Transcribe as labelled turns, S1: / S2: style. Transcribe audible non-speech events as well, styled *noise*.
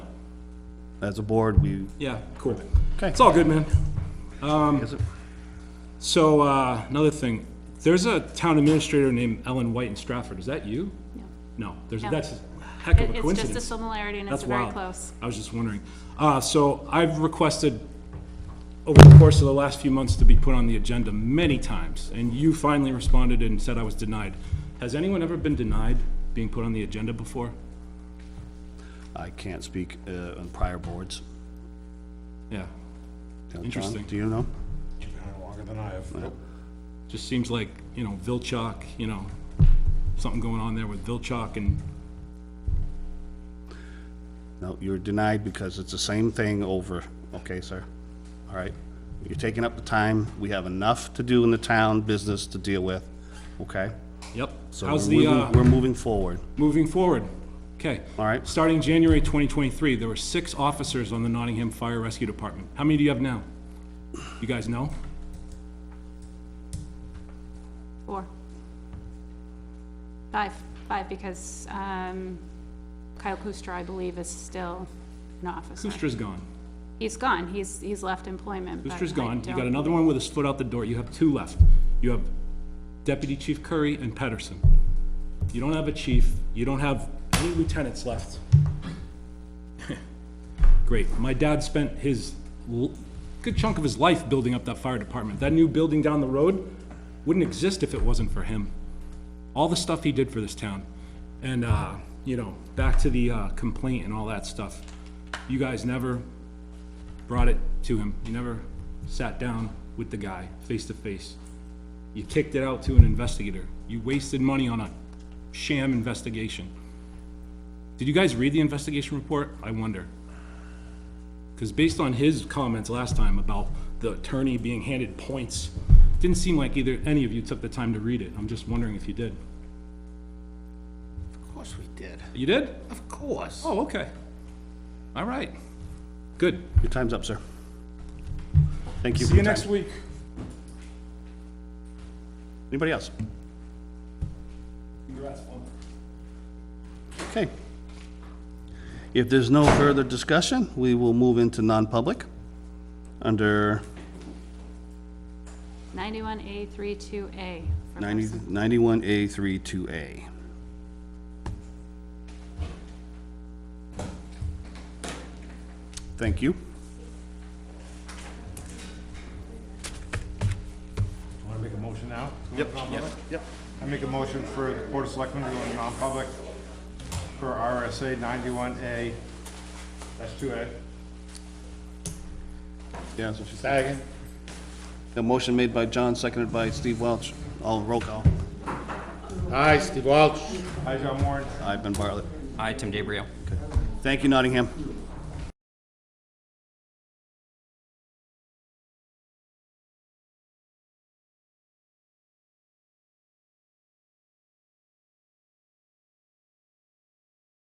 S1: as a board, we,
S2: Yeah, cool.
S1: Okay.
S2: It's all good, man. Um,
S1: is it-
S2: So, uh, another thing, there's a town administrator named Ellen White in Stratford, is that you? No, there's,
S3: No.
S2: that's a heck of a
S3: It- It's just a
S2: coincidence.
S3: similarity and it's
S2: That's
S3: very
S2: wild.
S3: close.
S2: I was just wondering. Uh, so I've requested over the course of the last few months to be put on the agenda many times, and you finally responded and said I was denied. Has anyone ever been denied being put on the agenda before?
S1: I can't speak uh, on prior boards. You
S2: Yeah,
S1: know, John,
S2: Interesting.
S1: Do you know?
S4: You've been on longer than I have.
S2: just seems like, you know, Vilchok, you know, something going on there with Vilchok and
S1: No, you're denied because it's the same thing over, okay, sir? All right? You're taking up the time, we have enough to do in the town, business to deal with, okay?
S2: Yep.
S1: So we're
S2: How's the,
S1: moving-
S2: uh,
S1: We're moving forward.
S2: moving forward? Okay.
S1: All right.
S2: Starting January 2023, there were six officers on the Nottingham Fire Rescue Department. How many do you have now? You guys know?
S3: Four. Five, five, because um, Kyle Kuster, I believe, is still an officer.
S2: Kustra's gone.
S3: He's gone. He's, he's left employment. but
S2: Kustra's
S3: I
S2: gone. You got
S3: don't-
S2: another one with his foot out the door. You have two left. You have Deputy Chief Curry and Pedersen. You don't have a chief. You don't have any lieutenants left. *laughs* Great. My dad spent his, l- good chunk of his life building up that fire department. That new building down the road wouldn't exist if it wasn't for him. All the stuff he did for this town. And, uh, you know, back to the uh, complaint and all that stuff. You guys never brought it to him. You never sat down with the guy face to face. You kicked it out to an investigator. You wasted money on a sham investigation. Did you guys read the investigation report? I wonder. Because based on his comments last time about the attorney being handed points, didn't seem like either, any of you took the time to read it. I'm just wondering if you did.
S5: Of course we did.
S2: You did?
S5: Of course.
S2: Oh, okay. All right. Good.
S1: Your time's up, sir. Thank you. for
S2: See you
S1: your
S2: next
S1: time.
S2: week.
S1: Anybody else?
S2: Congrats, Paul.
S1: Okay. If there's no further discussion, we will move into non-public under
S3: 91A32A. for
S1: 90
S3: person.
S1: 91A32A. Thank you.
S4: Want to make a motion now?
S1: Yep,
S4: Non-public?
S1: yep.
S4: I make a motion for the Board of Selectmen to go into non-public for RSA ninety-one A, that's two A.
S1: Yeah, that's what she said.
S4: Second.
S1: A motion made by John, seconded by Steve Welch. All roll call.
S4: Aye, Steve Welch. Aye, John Warren.
S1: I've been Bartlett.
S6: Hi, Tim DeBrio.
S1: Thank you, Nottingham.